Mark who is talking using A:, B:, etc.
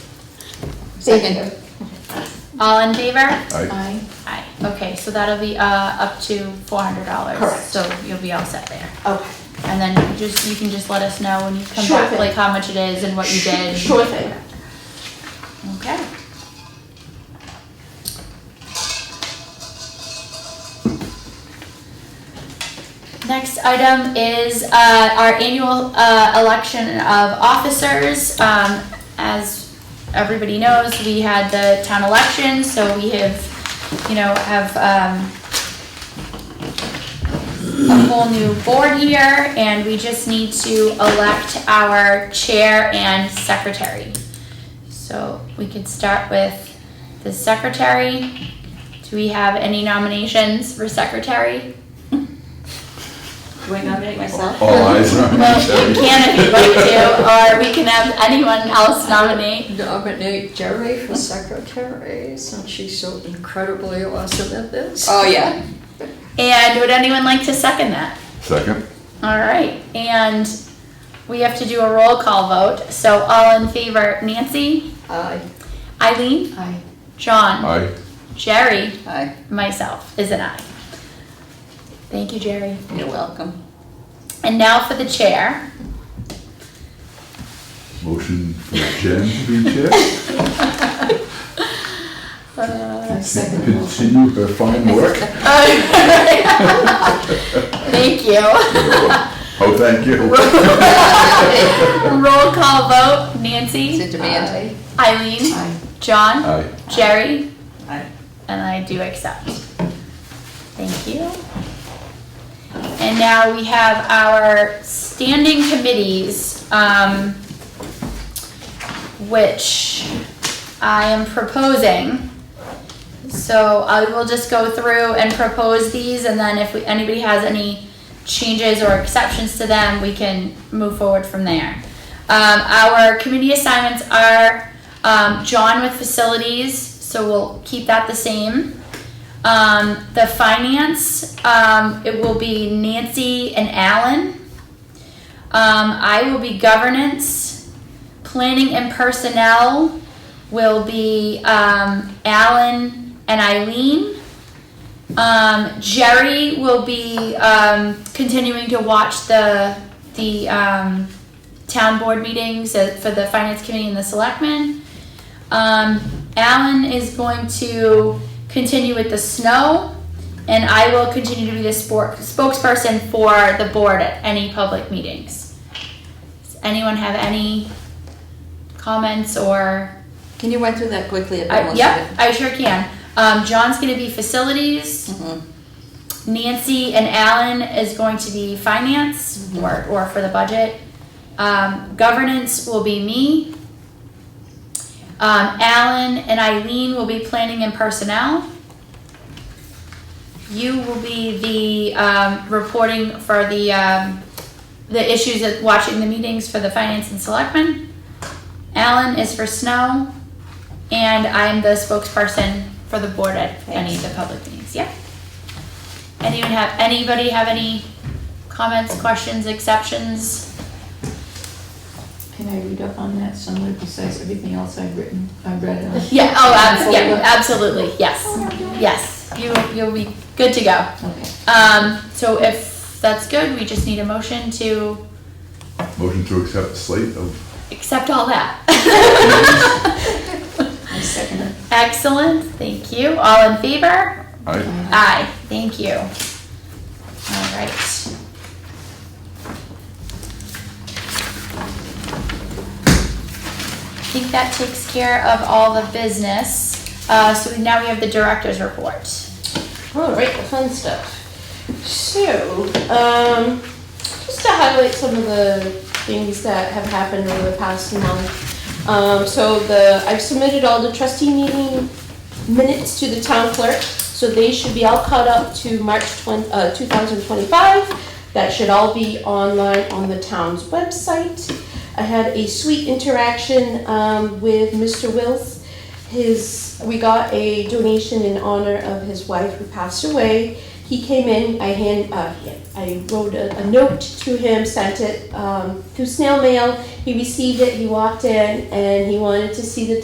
A: Thank you.
B: All in favor?
C: I,
A: Aye.
B: Aye. Okay, so that'll be, uh, up to four hundred dollars.
A: Correct.
B: So you'll be all set there.
A: Okay.
B: And then you just, you can just let us know when you come
A: Sure
B: back,
A: thing.
B: like how much it is and what you did.
A: Sure thing.
B: Okay. Next item is uh, our annual uh, election of officers. Um, As everybody knows, we had the town election, so we have, you know, have um, a whole new board here, and we just need to elect our chair and secretary. So we could start with the secretary. Do we have any nominations for secretary?
A: Do I nominate myself?
C: all eyes are on
B: Well,
C: me,
B: we
C: Sherry.
B: can if you'd like to, or we can have anyone else nominate.
D: nominate Jerry for secretary since she's so incredibly awesome at this.
A: Oh, yeah.
B: And would anyone like to second that?
C: Second?
B: All right, and we have to do a roll call vote. So all in favor, Nancy,
D: Aye.
B: Eileen,
A: Aye.
B: John,
C: Aye.
B: Jerry,
D: Aye.
B: myself is an aye. Thank you, Jerry.
A: You're welcome.
B: And now for the chair.
C: Motion for Jen to be chair,
B: Uh,
C: continue her fine work.
B: Thank Oh, you.
C: Oh, thank you.
B: Roll call vote, Nancy,
A: It's a demand.
B: Eileen,
A: Aye.
B: John,
C: Aye.
B: Jerry,
A: Aye.
B: and I do accept. Thank you. And now we have our standing committees, um, which I am proposing. So I will just go through and propose these, and then if we- anybody has any changes or exceptions to them, we can move forward from there. Um, our community assignments are, um, John with facilities, so we'll keep that the same. Um, the finance, um, it will be Nancy and Alan. Um, I will be governance. Planning and personnel will be um, Alan and Eileen. Um, Jerry will be um, continuing to watch the the um, town board meetings uh, for the finance committee and the selectmen. Um, Alan is going to continue with the snow, and I will continue to be the sport, spokesperson for the board at any public meetings. Does anyone have any comments or?
A: Can you run through that quickly?
B: I- Yep, I sure can. Um, John's gonna be facilities.
A: Mhm.
B: Nancy and Alan is going to be finance or, or for the budget. Um, governance will be me. Um, Alan and Eileen will be planning and personnel. You will be the, um, reporting for the, um, the issues of watching the meetings for the finance and selectmen. Alan is for snow. And I'm the spokesperson for the board at any of the public meetings, yeah. Anyone have, anybody have any comments, questions, exceptions?
A: Can I read up on that somewhere besides everything else I've written, I've read on?
B: Yeah, oh, abs- yeah, absolutely, yes, yes, you, you'll be good to go.
A: Okay.
B: Um, so if that's good, we just need a motion to
C: Motion to accept the slate of,
B: accept all that.
A: I second it.
B: Excellent, thank you, all in favor?
C: aye.
B: Aye, thank you. All right. I think that takes care of all the business. Uh, so now we have the director's report.
E: All right, the fun stuff. So, um, just to highlight some of the things that have happened over the past month. Um, so the, I've submitted all the trustee meeting minutes to the town clerk, so they should be all caught up to March twen- uh, two thousand twenty-five. That should all be online on the town's website. I had a sweet interaction, um, with Mr. Wills his we got a donation in honor of his wife who passed away. He came in, I hand uh, I wrote a, a note to him, sent it um, through snail mail. He received it, he walked in, and he wanted to see the